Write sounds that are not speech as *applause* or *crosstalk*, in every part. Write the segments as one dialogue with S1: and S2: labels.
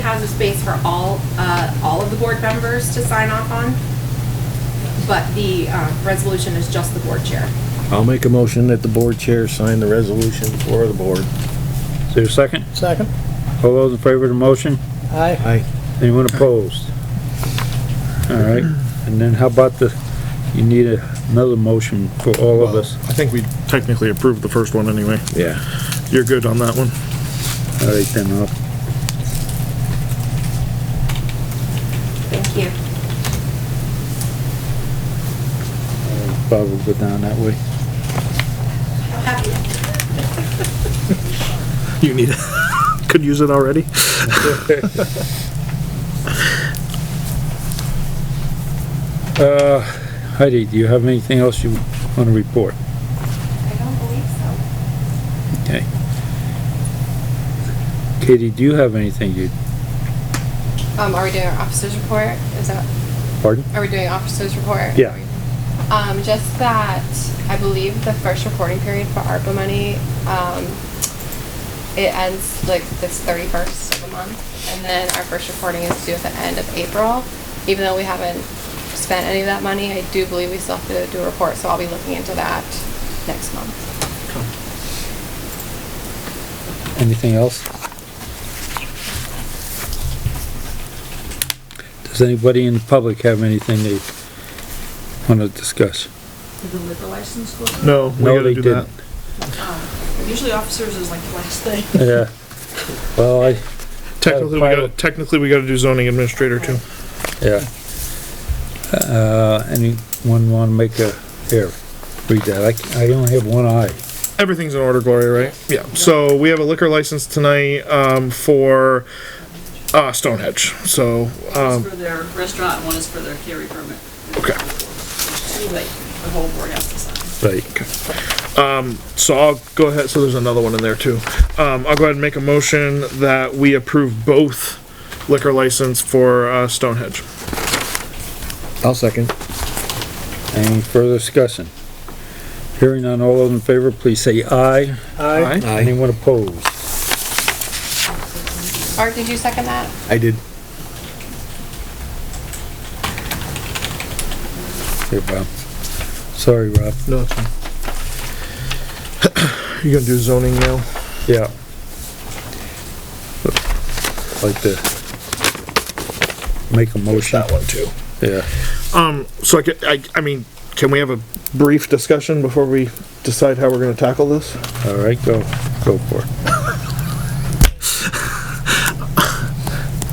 S1: has a space for all, uh, all of the board members to sign off on, but the uh, resolution is just the board chair.
S2: I'll make a motion that the board chair sign the resolution for the board.
S3: Is there a second?
S4: Second?
S3: All those in favor of the motion?
S4: Aye.
S2: Aye.
S3: Anyone opposed? All right, and then how about the, you need a- another motion for all of us.
S5: I think we technically approved the first one anyway.
S2: Yeah.
S5: You're good on that one.
S3: All right, then, I'll
S1: Thank you.
S3: Bob will go down that way.
S5: You need it. *laughs* Could use it already.
S3: Uh, Heidi, do you have anything else you want to report?
S1: I don't believe so.
S3: Okay. Katie, do you have anything you,
S6: Um, are we doing our officers report? Is that,
S3: pardon?
S6: are we doing officers report?
S3: Yeah.
S6: Um, just that, I believe the first reporting period for ARPA money, um, it ends like this thirty-first of the month. And then our first reporting is due at the end of April. Even though we haven't spent any of that money, I do believe we still have to do a report, so I'll be looking into that next month.
S3: Anything else? Does anybody in the public have anything they want to discuss?
S7: Did the liquor license go?
S5: No, we
S3: No,
S5: gotta
S3: they
S5: do that.
S3: didn't.
S7: Usually officers is like the last thing.
S3: Yeah. Well, I,
S5: Technically, we gotta, technically, we gotta do zoning administrator too.
S3: yeah. Uh, anyone want to make a, here, read that. I, c- I only have one eye.
S5: Everything's in order, Gloria, right? Yeah, so we have a liquor license tonight, um, for, uh, Stonehenge, so, *laughs*
S7: One's
S5: um,
S7: for their restaurant, one is for their carry permit.
S5: Okay.
S7: There's Two that the whole board has to sign.
S3: Like,
S5: Um, so I'll go ahead, so there's another one in there too. Um, I'll go ahead and make a motion that we approve both liquor license for, uh, Stonehenge.
S2: I'll second.
S3: any further discussion? Hearing on all those in favor, please say aye.
S5: Aye.
S3: Anyone opposed?
S6: Art, did you second that?
S2: I did.
S3: Here, Bob. Sorry, Rob.
S5: No, it's fine. You gonna do zoning now?
S3: Yeah. Like to make a motion.
S5: That one too.
S3: Yeah.
S5: Um, So I, ca- I, I mean, can we have a brief discussion before we decide how we're gonna tackle this?
S3: All right, go, go for it.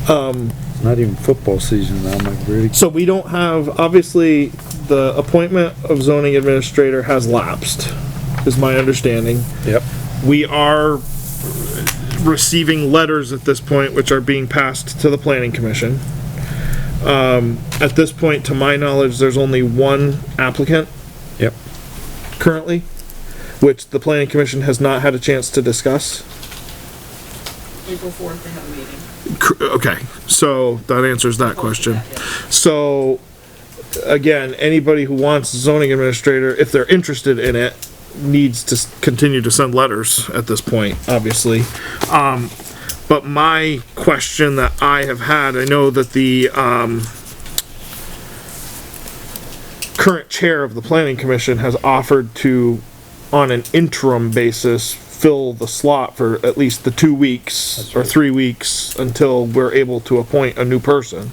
S3: Um. Not even football season now, my really.
S5: So we don't have, obviously, the appointment of zoning administrator has lapsed, is my understanding.
S3: Yep.
S5: We are receiving letters at this point, which are being passed to the planning commission. Um, at this point, to my knowledge, there's only one applicant
S3: Yep.
S5: currently, which the planning commission has not had a chance to discuss.
S7: April fourth, they have a meeting.
S5: Cr- Okay, so that answers that question. So, again, anybody who wants zoning administrator, if they're interested in it, needs to s- continue to send letters at this point, obviously. Um, but my question that I have had, I know that the, um, current chair of the planning commission has offered to, on an interim basis, fill the slot for at least the two weeks or three weeks until we're able to appoint a new person.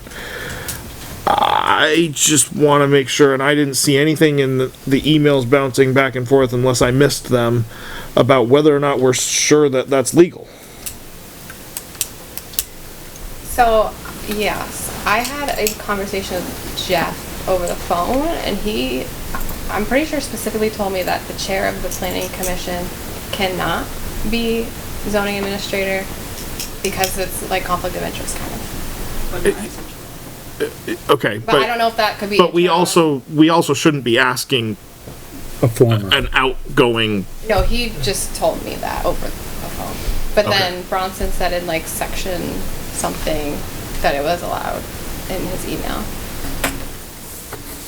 S5: I just want to make sure, and I didn't see anything in the, the emails bouncing back and forth unless I missed them about whether or not we're sure that that's legal.
S6: So, yes, I had a conversation with Jeff over the phone, and he, I'm pretty sure specifically told me that the chair of the planning commission cannot be zoning administrator because it's like conflict of interest kind of.
S7: But
S5: Okay,
S6: But I don't know if that could be.
S5: But we
S6: internal.
S5: also, we also shouldn't be asking
S3: A former.
S5: an outgoing,
S6: No, he just told me that over the phone. But then Bronson said in like section something that it was allowed in his email.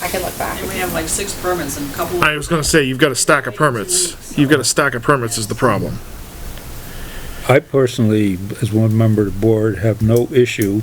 S6: I can look back.
S7: And we have like six permits and a couple.
S5: I was gonna say, you've got a stack of permits. You've got a stack of permits is the problem.
S3: I personally, as one member of the board, have no issue